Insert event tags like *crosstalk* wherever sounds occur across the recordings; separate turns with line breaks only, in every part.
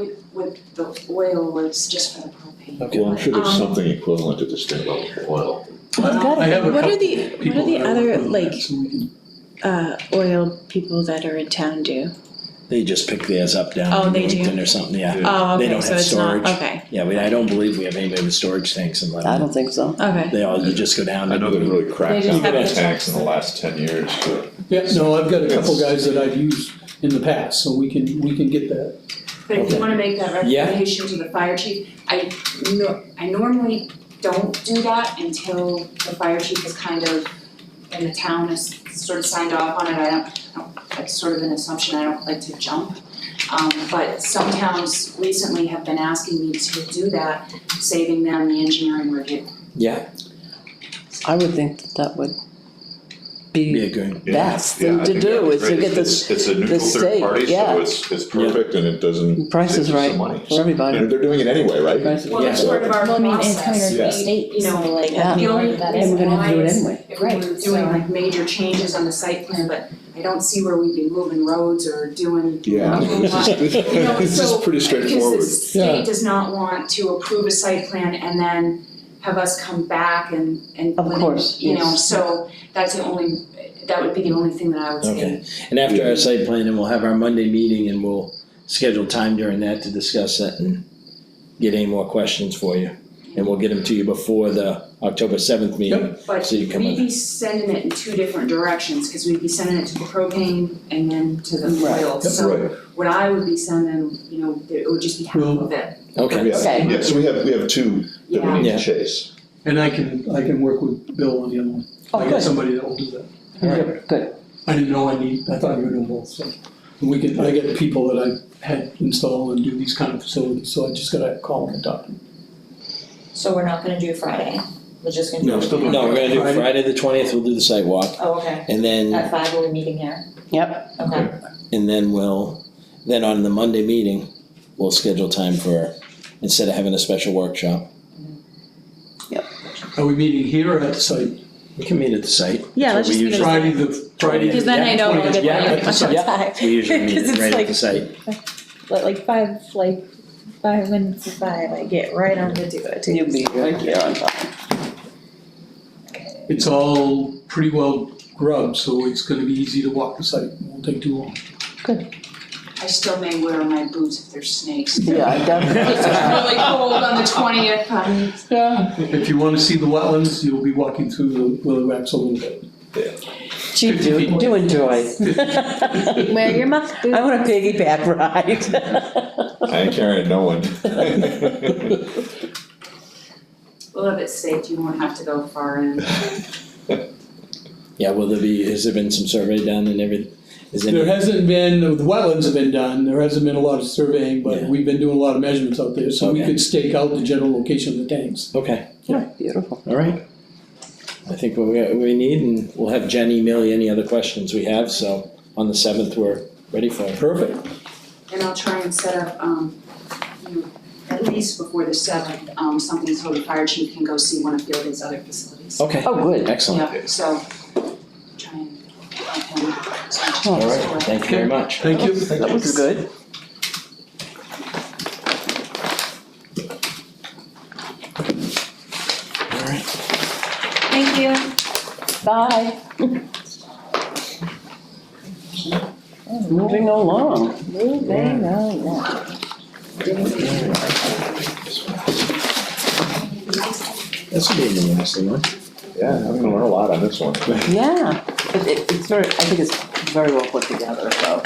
With, with the oil was just for the propane.
Okay, I'm sure there's
Um,
something equivalent to this thing about oil.
I've
I have a
got, what
couple
are the, what
people
are the
that
other,
work on
like,
that, so we can-
uh, oil people that are in town do?
They just pick theirs up down
Oh,
in
they do?
Newington or something, yeah.
Oh,
They
okay,
don't
so
have
it's not,
storage.
okay,
Yeah, we, I don't believe we have anybody with storage tanks in
I
Lebanon.
don't think so.
okay.
They all, you just go down
I
and
know they've really
They
cracked
just have
down on
the
tax
tax.
in the last ten years, but
Yeah, no, I've got a couple guys that I've used in the past, so we can, we can get that.
But if you wanna make that
Yeah.
recommendation to the fire chief, I no, I normally don't do that until the fire chief is kind of, and the town has sort of signed off on it, I don't, I don't, that's sort of an assumption, I don't like to jump. Um, but some towns recently have been asking me to do that, saving them the engineering review.
I would think that that would
be
be
a good,
yeah,
best
yeah,
thing
I
to
think
do
that's
is to
great.
get the
It's- It's a neutral third
state,
party,
yeah.
so it's, it's perfect and it doesn't,
price is
saves us
right
some money.
for everybody.
And they're doing it anyway, right?
Price is-
Well, that's
Yeah.
part of our
Well, I mean, it's coming
process,
from
Yeah.
the state,
You know,
so like,
yeah.
I don't know where that
And
is.
we're gonna have to do it
Why is-
anyway.
if we
Right,
were doing
so-
like major changes on the site plan, but I don't see where we'd be moving roads or doing.
Yeah, I mean, this *laughs* is,
You know,
this is
so-
pretty straightforward.
Because the
Yeah.
state does not want to approve a site plan and then have us come back and and.
Of course,
You know,
yes.
so that's the only, that would be the only thing that I would say.
okay. And after our site plan, and we'll have our Monday meeting and we'll schedule time during that to discuss that and get any more questions for you. And we'll get them to you before the October seventh meeting,
But
so you come
we'd
in.
be sending it in two different directions, because we'd be sending it to the propane and then to the
Right.
oil. So
Right,
what I would be sending, you know, it would just be half
Well,
of it,
Okay,
yeah,
Okay.
yeah, so we have, we have two that
Yeah.
we need
Yeah.
to chase.
And I can, I can work with Bill on the other one.
Oh,
I got
good.
somebody that will do that.
Alright, good.
I didn't know I need, I thought you were doing both, so. And we can, I get people that I've had install and do these kind of facilities, so I just gotta call them and talk to them.
So we're not gonna do Friday, we're just gonna do.
No, still doing-
no, we're gonna do
Friday.
Friday the twentieth, we'll do the site walk,
Oh, okay,
and then
at five we're meeting here,
Yep,
okay.
And then we'll, then on the Monday meeting, we'll schedule time for, instead of having a special workshop.
Are we meeting here or at the site?
We can meet at the site.
Yeah, let's
That's what
just
we
meet
usually-
Friday, the, Friday.
Because then I know I'll get
Yeah,
there.
at the
*laughs*
site.
Yeah. We usually meet
'Cause it's
right at
like-
the site.
But like five, like five minutes to five, I get right on to do it.
you'll be right here on time.
It's all pretty well grubbed, so it's gonna be easy to walk the site, It won't take too long.
I still may wear my boots if there's snakes.
Yeah,
*laughs*
I
It's
definitely.
really cold on the twentieth, um,
Yeah,
If you wanna see the wetlands, you'll be walking through the willow wraps a little bit.
gee, do, do enjoy.
Wear your muff boots.
Oh,
I want a piggyback *laughs*
*laughs*
ride.
I ain't carrying no one. *laughs*
well, if it's safe, you won't have to go far in.
Yeah, will there be, has there been some survey done and everything? Is
There
there,
hasn't been, the wetlands have been done, there hasn't been a lot of surveying, but
Yeah.
we've been doing a lot of measurements out there, so we
Okay.
could stake out the general location of the tanks.
okay,
Beautiful.
all right. I think what we, we need, and we'll have Jen email you any other questions we have, so on the seventh, we're ready for it. Perfect.
And I'll try and set up, um, you know, at least before the seventh, um, something so the fire chief can go see one of Fielding's other facilities.
Okay,
Oh, good.
excellent.
Yeah, so, try and, um,
All right, thank you very much.
Thank you.
That was good.
All right.
Thank you.
Bye. Moving along.
Moving on.
That's gonna be an interesting one.
Yeah, I'm gonna learn a lot on this one.
Yeah, it, it, it's very, I think it's very well put together, so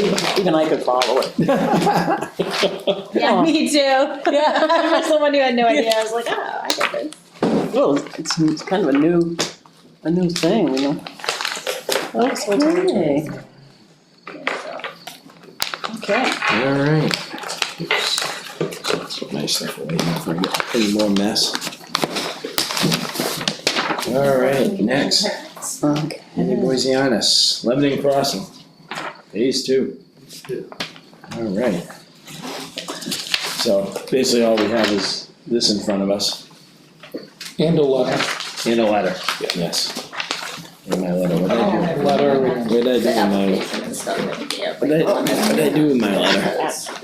even, even I could follow it.
*laughs* Yeah, me too. Yeah. *laughs* I'm someone who had no idea, I was like, oh, I get this.
Well, it's, it's kind of a new, a new thing, you know? Okay.
Okay.
All right. That's what nice stuff away now before I get any more mess. All right, next,
Okay.
Andy Boisianis, Lebanon Crossing, phase two. All right. So basically all we have is this in front of us
And a letter.
and a letter, yes. And my letter, what did
Oh,
I do?
Letter.
What did I do
The
with my,
application and stuff that we gave,
what did I,
like,
what did I do with my letter?
that's-